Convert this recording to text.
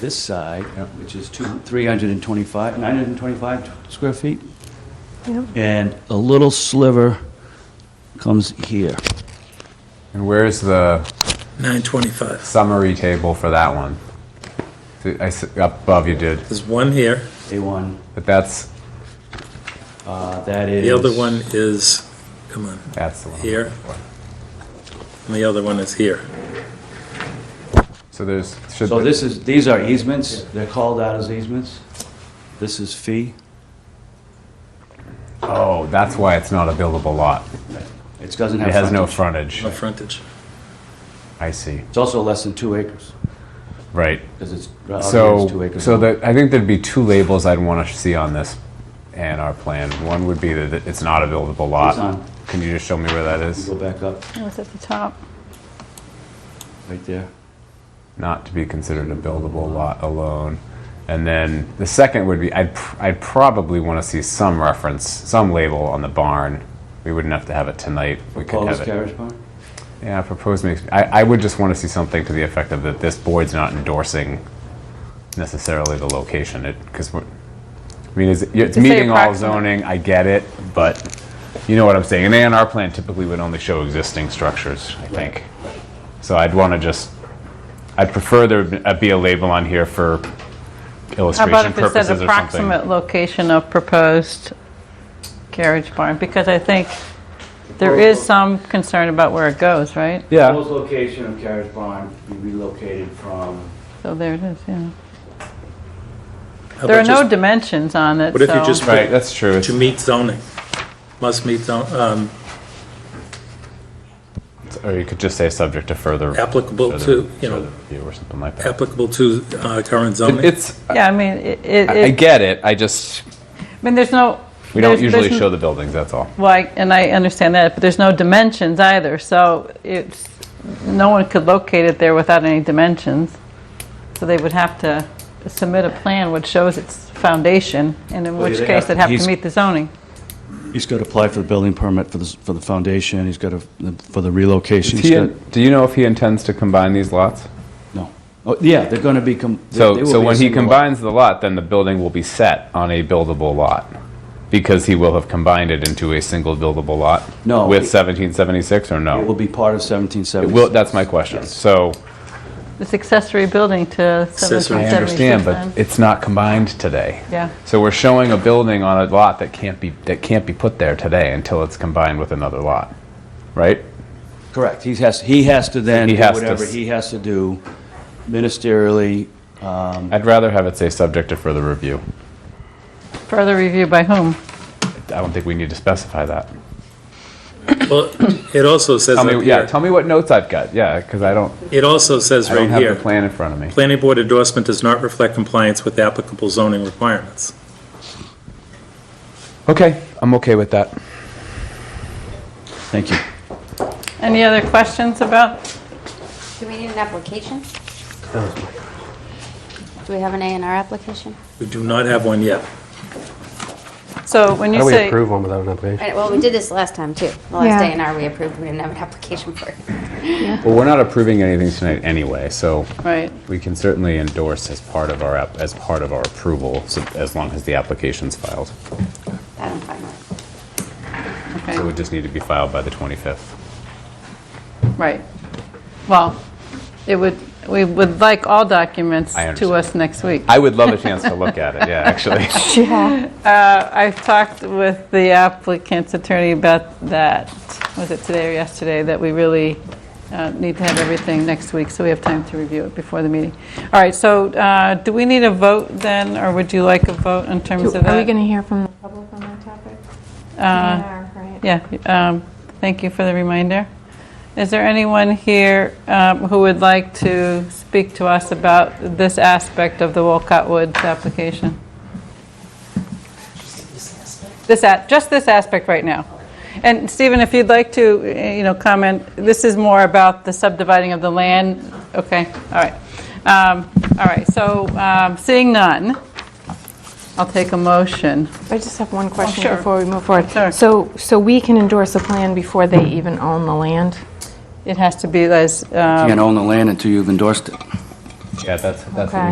this side, uh, which is two, 325, 925 square feet, Yep. and a little sliver comes here. And where's the 925. summary table for that one? I s- Up above you did, There's one here. A1, but that's, uh, that is... The other one is, come on, that's the one. here. And the other one is here. So there's, should, So the- this is, these are easements, they're called out as easements. This is fee. oh, that's why it's not a buildable lot. It doesn't have... It has no frontage. frontage. No frontage. I see, It's also less than two acres, right. because it's, out here it's two So, acres. so that, I think there'd be two labels I'd want to see on this and our plan. One would be that it's not a buildable lot. It's not. Can you just show me where that is? Go back up, It was at the top. right there. Not to be considered a buildable lot alone. And then the second would be, I'd, pr- I'd probably want to see some reference, some label on the barn. We wouldn't have to have it tonight. We could Close have it. carriage barn? Yeah, proposed makes, I, I would just want to see something to the effect of that this board's not endorsing necessarily the location, it, because we're, I mean, it's, it's say meeting all approximate. zoning, I get it, but you know what I'm saying, an A and R plan typically would only show existing structures, I think. So I'd want to just, I'd prefer there be- uh, be a label on here for How about if it illustration says purposes or something. approximate location of proposed carriage barn? Because I think there is some concern about where it goes, right? Yeah, Proposed location of carriage barn be relocated from, So there it is, yeah. How There are about no just- dimensions on it, What if you so- just put right, that's true. to meet zoning? Must meet, zon- um, It's- Or you could just say subject to further. Applicable further- to, you know- further review Or something like that. applicable to uh, current zoning. It's, Yeah, I mean, it, it- I I it- get it, I just, I mean, there's no. we don't there's- usually there's- show the buildings, that's all. Well, I- and I understand that, but there's no dimensions either, so it's, no one could locate it there without any dimensions. So they would have to submit a plan which shows its foundation, and in Well, which they case have- it'd have he's- to meet the zoning. he's got to apply for the building permit for the, s- for the foundation, he's got to, for the relocation. He he's got- do you know if he intends to combine these lots? No. Oh, yeah, they're going to be, com- they- they So, will so be a when he single lot. combines the lot, then the building will be set on a buildable lot because he will have combined it into a single buildable lot. No, with it- 1776 or It will no? be part of 1776. Well, that's my question. So This accessory building to Accessory. I 1776. understand, then. but it's not combined today. Yeah. So we're showing a building on a lot that can't be that can't be put there today until it's combined with another lot, right? Correct. He has, he has to then He do has to whatever s- he has to do ministerially. I'd rather have it say subject to further review. Further review by whom? I don't think we need to specify that. Well, it also says Tell up me, yeah, here, tell me what notes I've got. Yeah, because I don't. it also says I don't right have the here, plan in front of me. planning board endorsement does not reflect compliance with applicable zoning requirements. Okay, I'm okay with that. Thank you. Any other questions about? Do we need an application? Do we have an A and R application? We do not have one yet. So when you How do we say, approve one without an application? Right, Well, we did this last time, too. The Yeah. last A and R we approved, we didn't have an application for it. Well, we're not approving anything tonight anyway, so right, we can certainly endorse as part of our, app- as part of our approval, so- as long as the application's filed. That I'm fine with. It okay, would just need to be filed by the 25th. right. Well, it would, we would like all documents I to us next week. I would love a chance to look at it, yeah, actually. Uh, I've talked with the applicant's attorney about that, was it today or yesterday, that we really uh, need to have everything next week, so we have time to review it before the meeting. All right, so uh, do we need a vote then, or would you like a vote in terms of that? Uh, Are we going to hear from the public on that topic? We are, right? Yeah, um, thank you for the reminder. Is there anyone here um, who would like to speak to us about this aspect of the Wolcott Woods application? This, a- just this aspect right now. And Stephen, if you'd like to, eh, you know, comment, this is more about the subdividing of the land, okay, all right. Um, All right, so um, seeing none, I'll take a motion. I just have one question sure. before we move forward. Sure. So, so we can endorse a plan before they even own the land? It has to be as, um, Can't own the land until you've endorsed it. Yeah, that's, that's Okay.